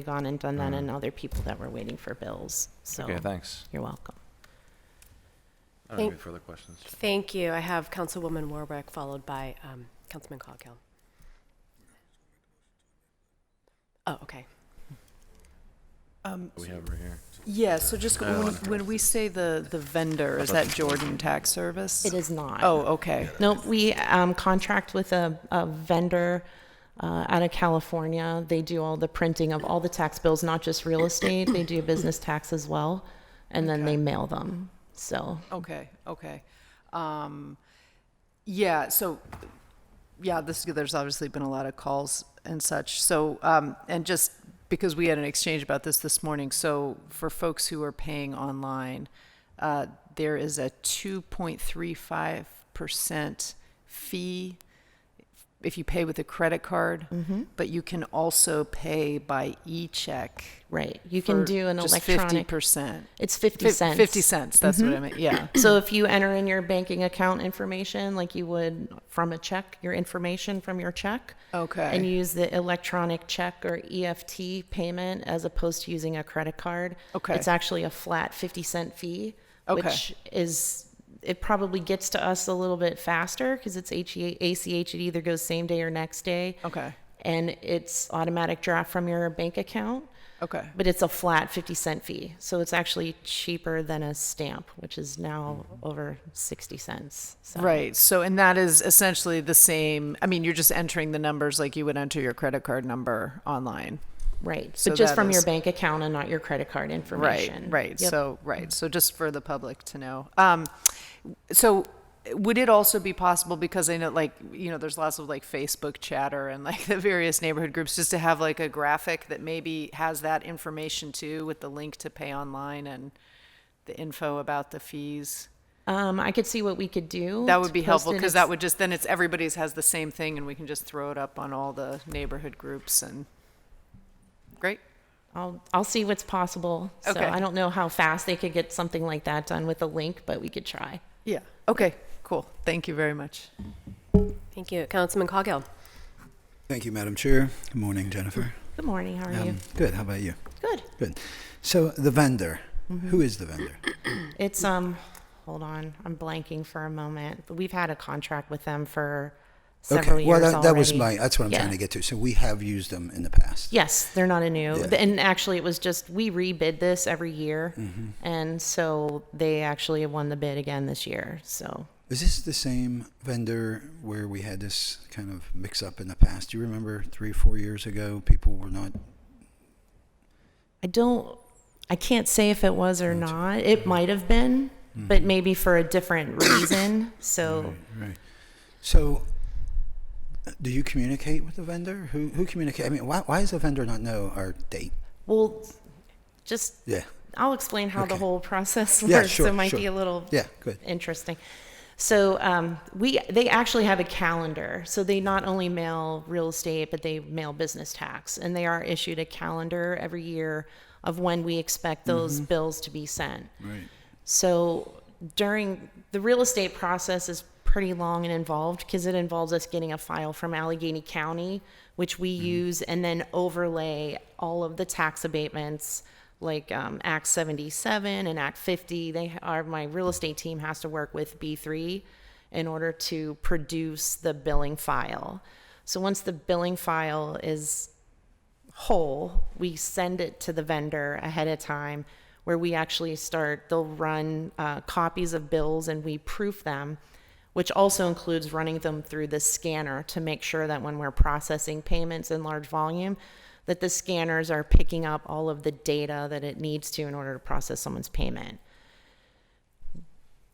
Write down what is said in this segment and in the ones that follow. gone and done that Mm. and other people that were waiting for bills. So Okay, thanks. you're welcome. I don't have Thank- any further questions. Thank you. I have Councilwoman Warwick, followed by um, Councilman Coghill. Oh, okay. We have right here. Um, Yeah, so just, when, when we say the, the vendor, is that Jordan Tax Service? It is not. Oh, okay. Nope, we um, contract with a, a vendor uh, out of California. They do all the printing of all the tax bills, not just real estate. They do business tax as well, and then they mail them. So Okay, okay. Um, yeah, so, yeah, this, there's obviously been a lot of calls and such, so, um, and just because we had an exchange about this this morning, so for folks who are paying online, uh, there is a two point three five percent fee if you pay with a credit card, Mm-hmm. but you can also pay by e-check. right, you can for do an just electronic. 50%. It's fifty Fif- cents. Mm-hmm. 50 cents, that's what I meant, yeah. So if you enter in your banking account information, like you would from a check, your information from your check, Okay. and use the electronic check or EFT payment as opposed to using a credit card, Okay. it's actually a flat 50 cent fee, Okay. which is it probably gets to us a little bit faster because it's E, HE ACH. It either goes same day or next day. Okay. And it's automatic draft from your bank account, Okay. but it's a flat 50 cent fee. So it's actually cheaper than a stamp, which is now over 60 cents. So. Right. So, and that is essentially the same. I mean, you're just entering the numbers like you would enter your credit card number online. Right. So but just that from your is- bank account and not your credit card Right. information. Right. Yep. So, right. So, just for the public to know. Um, so, would it also be possible because I know, like, you know, there's lots of like Facebook chatter and like the various neighborhood groups just to have like a graphic that maybe has that information too with the link to pay online and the info about the fees? Um, I could see what we could do. That to would be post helpful it. because It's- that would just, then it's, everybody's has the same thing and we can just throw it up on all the neighborhood groups and, great. I'll, I'll see what's possible. So Okay. I don't know how fast they could get something like that done with a link, but we could try. Yeah. Okay, cool. Thank you very much. Thank you. Councilman Coghill. Thank you, Madam Chair. Good morning, Jennifer. Good morning. How are you? Um, Good, how about you? Good. Good. So the vendor, Mm-hmm. who is the vendor? It's, um, hold on. I'm blanking for a moment. We've had a contract with them for several Okay, years well, that, that was my, already. that's what I'm Yeah. trying to get to. So we have used them in the past. Yes, they're not a new. Yeah. And actually, it was just we rebid this every year. Mm-hmm. And so they actually won the bid again this year. So Is this the same vendor where we had this kind of mix up in the past? Do you remember three, four years ago, people were not, I don't, I can't say if it was or not. It Mm-hmm. might have been, but maybe for a different reason. So right? So uh, do you communicate with the vendor? Who, who communicate? I mean, why, why does the vendor not know our date? Well, just, Yeah. I'll explain how the Okay. whole process Yeah, works. sure, It might sure. be a little Yeah, good. interesting. So um, we, they actually have a calendar. So they not only mail real estate, but they mail business tax. And they are issued a calendar every year of when we expect those Mm-hmm. bills to be sent. Right. So during the real estate process is pretty long and involved because it involves us getting a file from Allegheny County, which we use, and then overlay all of the tax abatements like um, Act 77 and Act 50. They are my real estate team has to work with B3 in order to produce the billing file. So once the billing file is whole, we send it to the vendor ahead of time where we actually start, they'll run uh, copies of bills and we proof them, which also includes running them through the scanner to make sure that when we're processing payments in large volume, that the scanners are picking up all of the data that it needs to in order to process someone's payment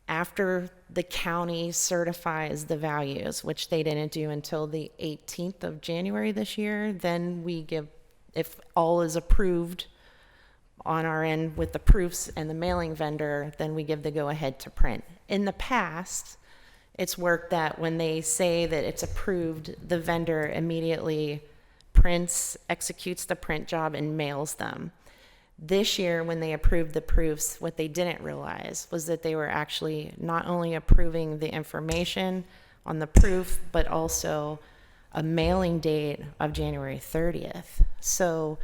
after the county certifies the values, which they didn't do until the 18th of January this year, then we give, if all is approved on our end with the proofs and the mailing vendor, then we give the go-ahead to print. In the past, it's worked that when they say that it's approved, the vendor immediately prints, executes the print job, and mails them. This year, when they approved the proofs, what they didn't realize was that they were actually not only approving the information on the proof, but also a mailing date of January 30th. So